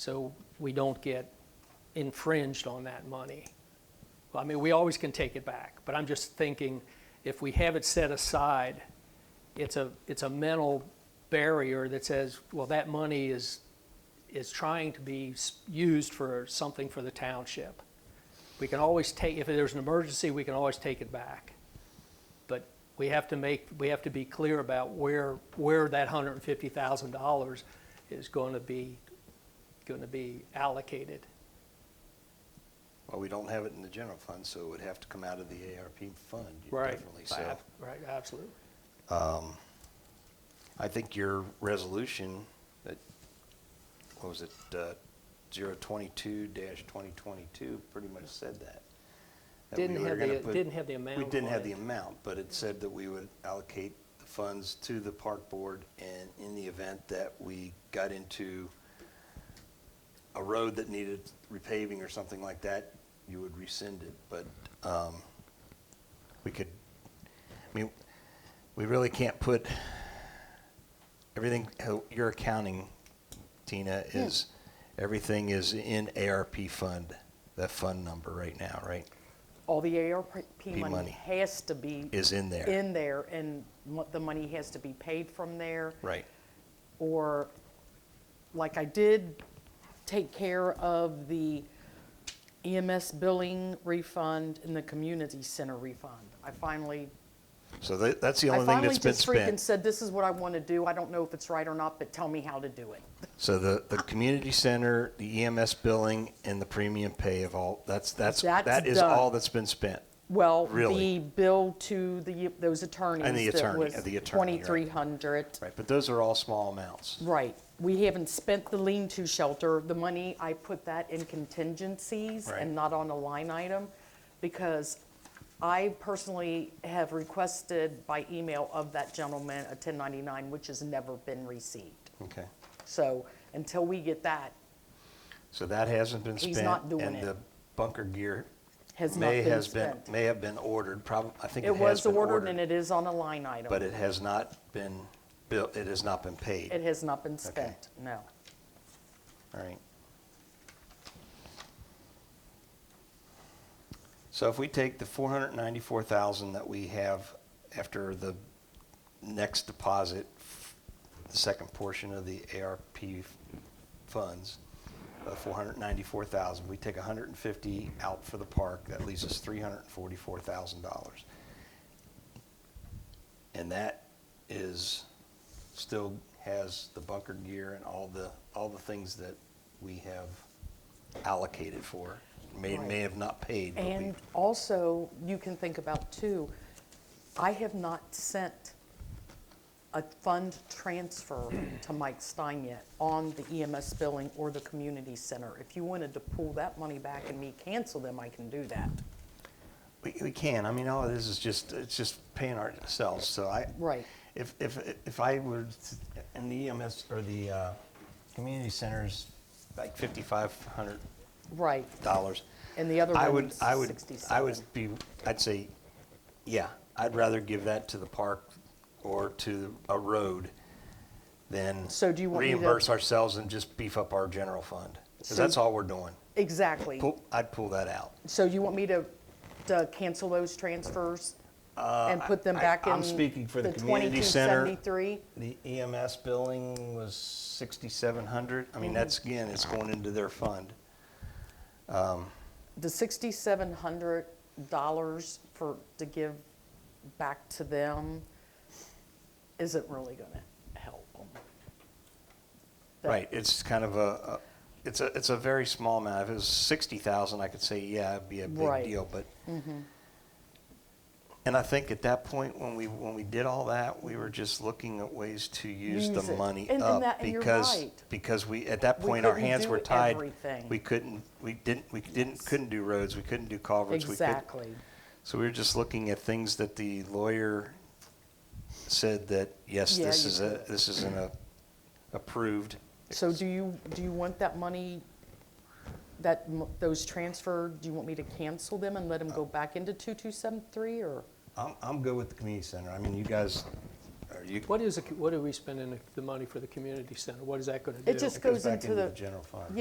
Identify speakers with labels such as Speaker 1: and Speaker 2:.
Speaker 1: so we don't get infringed on that money. I mean, we always can take it back, but I'm just thinking, if we have it set aside, it's a, it's a mental barrier that says, well, that money is, is trying to be s- used for something for the township. We can always take, if there's an emergency, we can always take it back. But we have to make, we have to be clear about where, where that hundred and fifty thousand dollars is going to be, going to be allocated.
Speaker 2: Well, we don't have it in the general fund, so it would have to come out of the ARP fund,
Speaker 1: Right.
Speaker 2: definitely, so.
Speaker 1: Ab- Right, absolutely.
Speaker 2: I think your resolution, that, what was it, uh, 022-2022, pretty much said that. that we
Speaker 1: Didn't
Speaker 2: were
Speaker 1: have
Speaker 2: gonna
Speaker 1: the-
Speaker 2: put-
Speaker 1: didn't have the amount
Speaker 2: We didn't
Speaker 1: on
Speaker 2: have
Speaker 1: it.
Speaker 2: the amount, but it said that we would allocate the funds to the park board, and in the event that we got into a road that needed repaving or something like that, you would rescind it, but um, we could, I mean, we really can't put, everything, how your accounting, Tina, is, everything is in ARP fund, that fund number right now, right?
Speaker 3: All the ARP
Speaker 2: money.
Speaker 3: money has to be.
Speaker 2: Is in there.
Speaker 3: In there, and mo- the money has to be paid from there.
Speaker 2: Right.
Speaker 3: Or, like I did take care of the EMS billing refund and the community center refund. I finally,
Speaker 2: So that, that's the
Speaker 3: I
Speaker 2: only thing
Speaker 3: finally
Speaker 2: that's been
Speaker 3: just freaking
Speaker 2: spent.
Speaker 3: said, this is what I want to do. I don't know if it's right or not, but tell me how to do it.
Speaker 2: So the, the community center, the EMS billing, and the premium pay of all, that's, that's,
Speaker 3: That's
Speaker 2: that is
Speaker 3: done.
Speaker 2: all that's been spent.
Speaker 3: Well,
Speaker 2: Really?
Speaker 3: the bill to the, those attorneys. that
Speaker 2: attorney-
Speaker 3: was
Speaker 2: the attorney, right.
Speaker 3: 2,300.
Speaker 2: Right, but those are all small amounts.
Speaker 3: Right. We haven't spent the lean-to shelter. The money, I put that in contingencies
Speaker 2: Right.
Speaker 3: and not on a line item because I personally have requested by email of that gentleman a 1099, which has never been received.
Speaker 2: Okay.
Speaker 3: So until we get that,
Speaker 2: So that hasn't been spent.
Speaker 3: He's not doing
Speaker 2: And
Speaker 3: it.
Speaker 2: the bunker gear
Speaker 3: Has not
Speaker 2: may
Speaker 3: been
Speaker 2: has been,
Speaker 3: spent.
Speaker 2: may have been ordered, prob, I think it
Speaker 3: it
Speaker 2: has
Speaker 3: was
Speaker 2: been
Speaker 3: ordered and
Speaker 2: ordered.
Speaker 3: it is on a line item.
Speaker 2: But it has not been built, it has not been paid.
Speaker 3: It has not been spent, no.
Speaker 2: All right. So if we take the four hundred ninety-four thousand that we have after the next deposit, the second portion of the ARP funds, uh, four hundred ninety-four thousand, we take a hundred and fifty out for the park, that leaves us three hundred and forty-four thousand dollars. And that is, still has the bunker gear and all the, all the things that we have allocated for. May, may have not paid, but we,
Speaker 3: And also, you can think about too, I have not sent a fund transfer to Mike Stein yet on the EMS billing or the community center. If you wanted to pull that money back and me cancel them, I can do that.
Speaker 2: we, we can. I mean, all of this is just, it's just paying ourselves, so I.
Speaker 3: Right.
Speaker 2: If, if, if I were, to- and the EMS or the, uh, community centers, like fifty-five hundred
Speaker 3: Right.
Speaker 2: dollars.
Speaker 3: And the other
Speaker 2: I would,
Speaker 3: one's
Speaker 2: I would, I
Speaker 3: 67.
Speaker 2: would be, I'd say, yeah, I'd rather give that to the park or to a road than
Speaker 3: So do you want me to-
Speaker 2: reimburse ourselves and just beef up our general fund. Because
Speaker 3: So-
Speaker 2: that's all we're doing.
Speaker 3: Exactly.
Speaker 2: Pull, I'd pull that out.
Speaker 3: So you want me to, to cancel those transfers and put them
Speaker 2: Uh, I-
Speaker 3: back in?
Speaker 2: I'm speaking for the community center.
Speaker 3: 2273?
Speaker 2: The EMS billing was sixty-seven hundred. I
Speaker 3: Mm-hmm.
Speaker 2: mean, that's, again, it's going into their fund.
Speaker 3: the sixty-seven hundred dollars for, to give back to them isn't really gonna help them.
Speaker 2: Right, it's kind of a, a- it's a, it's a very small amount. If it was sixty thousand, I could say, yeah, it'd be a big
Speaker 3: Right. Mm-hmm.
Speaker 2: deal, but. And I think at that point, when we, when we did all that, we were just looking at ways to use the
Speaker 3: Use it.
Speaker 2: money
Speaker 3: And- and
Speaker 2: up.
Speaker 3: that- and you're
Speaker 2: Because,
Speaker 3: right.
Speaker 2: because we, at that
Speaker 3: We
Speaker 2: point, our
Speaker 3: couldn't
Speaker 2: hands
Speaker 3: do
Speaker 2: were tied.
Speaker 3: everything.
Speaker 2: We couldn't, we didn't, we didn't, couldn't do roads, we couldn't do culverts. we couldn't-
Speaker 3: Exactly.
Speaker 2: So we were just looking at things that the lawyer said that, yes,
Speaker 3: Yeah,
Speaker 2: this
Speaker 3: you
Speaker 2: is a, this is an uh, approved.
Speaker 3: So do you, do you want that money, that, mo- those transferred, do you want me to cancel them and let them go back into two-two-seven-three, or?
Speaker 2: I'm, I'm good with the community center. I mean, you guys, are you?
Speaker 1: What is, the co- what are we spending the- the money for the community center? What is that going to do?
Speaker 3: It just
Speaker 2: goes
Speaker 3: goes
Speaker 2: back
Speaker 3: into the.
Speaker 2: general fund.